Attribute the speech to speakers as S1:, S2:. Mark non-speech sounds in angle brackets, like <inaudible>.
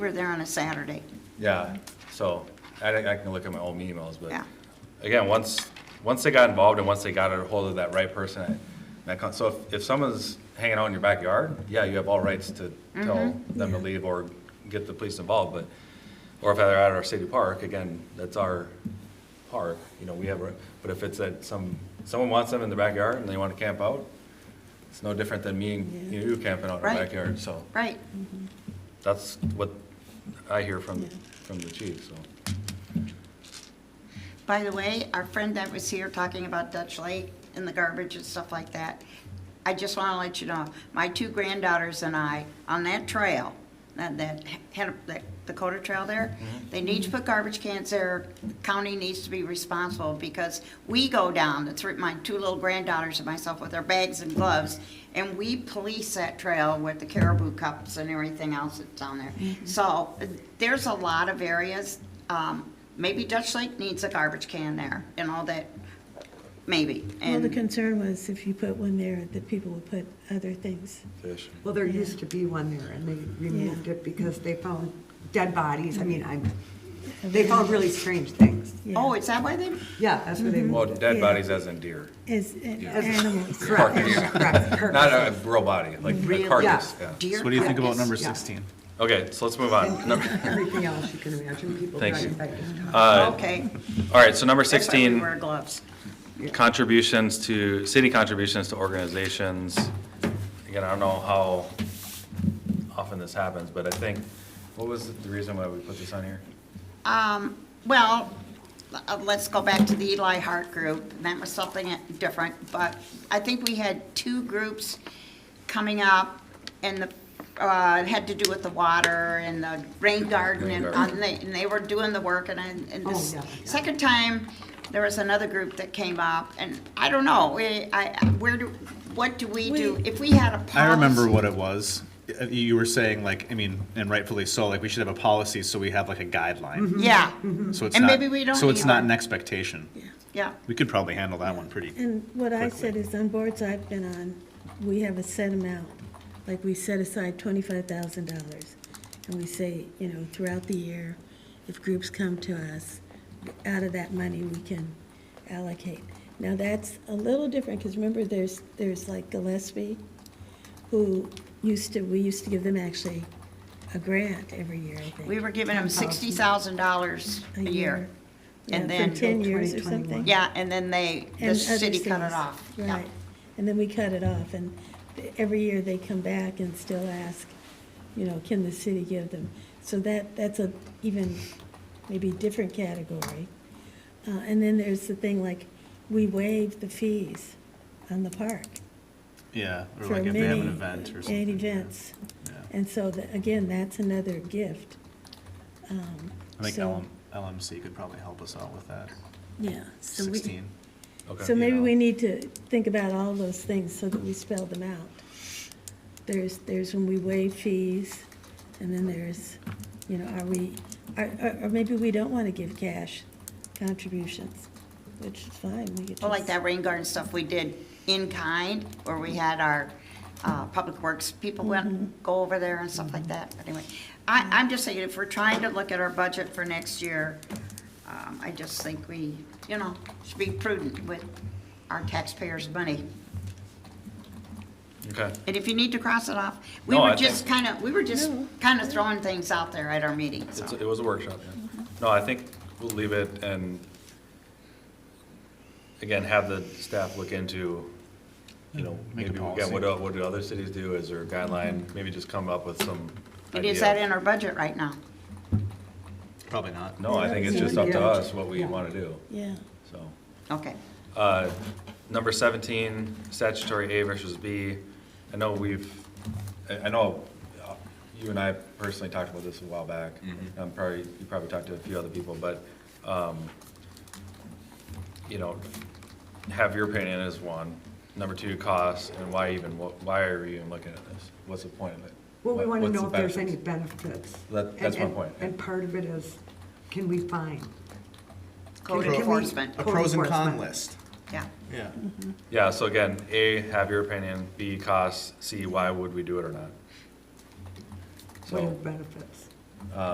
S1: We're there on a Saturday.
S2: Yeah, so I, I can look at my own emails, but
S1: Yeah.
S2: again, once, once they got involved and once they got a hold of that right person, I- that, con- so if, if someone's hanging out in your backyard, yeah, you have all rights to tell
S1: Mm-hmm.
S2: them to leave or get the police involved, but, or if they're at our city park, again, that's our park, you know, we have, a- but if it's at some, someone wants them in the backyard and they want to camp out, it's no different than me and you camping out in our
S1: Right.
S2: backyard, so
S1: Right.
S2: that's what I hear from, from the chief, so.
S1: By the way, our friend that was here talking about Dutch Lake and the garbage and stuff like that, I just want to let you know, my two granddaughters and I, on that trail, that, that, had- that Dakota Trail there, they need to put garbage cans there. The County needs to be responsible because we go down, the three, my two little granddaughters and myself with our bags and gloves, and we police that trail with the caribou cups and everything else that's down there. So uh, there's a lot of areas, um, maybe Dutch Lake needs a garbage can there and all that, maybe.
S3: Well, the
S1: And-
S3: concern was if you put one there, that people would put other things.
S2: Fish.
S4: Well, there used to be one there, and they removed it because they found dead bodies. I mean, I'm, they found really strange things.
S3: Yeah.
S1: Oh, is that why they,
S4: Yeah, that's where they
S2: Well,
S4: moved it.
S2: dead
S3: Yeah.
S2: bodies as in deer,
S3: As an animals.
S4: Correct,
S2: Carcass.
S4: correct,
S2: <laughs> not
S4: correct.
S2: a real body, like
S1: Really?
S2: a carcass, yeah.
S1: deer?
S5: So what do you think about
S1: carcass?
S5: number
S4: yeah.
S5: 16?
S2: Okay, so let's move on. Number-
S4: Everything else you can imagine, people
S2: Thank you.
S4: driving back to town.
S2: Uh,
S1: Okay.
S2: All right, so number
S1: That's why we
S2: 16,
S1: Wear gloves.
S2: contributions to, city contributions to organizations. Again, I don't know how often this happens, but I think, what was the reason why we put this on here?
S1: Um, well, uh, let's go back to the Eli Hart group, and that was something different, but I think we had two groups coming up, and the, uh, it had to do with the water and the rain garden, and,
S2: Rain garden.
S1: and they, and they were doing the work, and I, and
S4: Oh,
S1: this
S4: yeah, yeah.
S1: second time, there was another group that came up, and I don't know, we, I, where do, what do we do?
S3: We-
S1: If we had a policy.
S5: I remember what it was. Uh, You were saying like, I mean, and rightfully so, like we should have a policy so we have like a guideline.
S1: Yeah,
S5: So it's
S1: Mm-hmm. And
S5: not,
S1: maybe we don't
S5: so it's
S1: need
S5: not
S1: one.
S5: an expectation.
S1: yeah.
S5: We could probably handle that one pretty.
S3: And what I
S5: Quickly.
S3: said is on boards I've been on, we have a set amount. Like we set aside twenty-five thousand dollars. And we say, you know, throughout the year, if groups come to us, out of that money, we can allocate. Now, that's a little different, because remember, there's, there's like Gillespie, who used to, we used to give them actually a grant every year, I think.
S1: We were giving them sixty thousand dollars a year. And
S3: Yeah,
S1: then,
S3: For ten years or
S4: 2021.
S3: something.
S1: yeah, and then they, the
S3: And
S1: city
S3: other
S1: cut it
S3: things.
S1: off. Yeah.
S3: Right, and then we cut it off, and th- every year they come back and still ask, you know, can the city give them? So that, that's a even maybe different category. Uh, and then there's the thing like, we waive the fees on the park
S5: Yeah, or
S3: for
S5: like if
S3: many.
S5: they have an event or something.
S3: and events,
S5: Yeah.
S3: and so, the- again, that's another gift. Um,
S5: I think
S3: so-
S5: LM, LMC could probably help us out with that.
S3: Yeah, so we.
S5: 16.
S2: Okay.
S3: So maybe
S5: know.
S3: we need to think about all those things so that we spell them out. There's, there's when we waive fees, and then there's, you know, are we, or, or maybe we don't want to give cash contributions, which is fine, we could just.
S1: Well, like that rain garden stuff we did in kind, where we had our, uh, public works people
S3: Mm-hmm.
S1: went, go over there and stuff like that. But Anyway, I, I'm just saying, if we're trying to look at our budget for next year, um, I just think we, you know, should be prudent with our taxpayers' money.
S2: Okay,
S1: And if you need to cross it off, we
S2: No, I
S1: were
S2: think-
S1: just kind of, we were just kind of throwing things out there at our meeting, so.
S2: It's- it was a workshop, yeah. No, I think we'll leave it and, again, have the staff look into, you know, maybe,
S5: Make a
S2: again,
S5: policy.
S2: what, do- what do other cities do? Is there a guideline? Maybe just come up with some
S1: And is that
S2: idea.
S1: in our budget right now?
S5: Probably not.
S2: No, I think it's just up to us what we want to do,
S3: Yeah,
S2: so.
S1: Okay.
S2: Uh, Number 17, statutory A versus B. I know we've, I I know uh, you and I personally talked about this a while back. I'm probably, you probably talked to a few other people, but, um, you know, have your opinion is one. Number two, cost, and why even, what- why are we even looking at this? What's the point of it?
S4: Well, we
S2: What-
S4: want to
S2: what's
S4: know
S2: the
S4: if there's
S2: benefits?
S4: any benefits.
S2: That- that's
S4: And-
S2: my point, yeah.
S4: And part of it is, can we find?
S1: Code
S4: Can we-
S1: enforcement,
S5: A pros and con
S4: Enforcement.
S5: list.
S1: yeah.
S5: Yeah.
S2: Yeah, so again, A, have your opinion, B, cost, C, why would we do it or not?
S4: What are
S2: So,
S4: the benefits?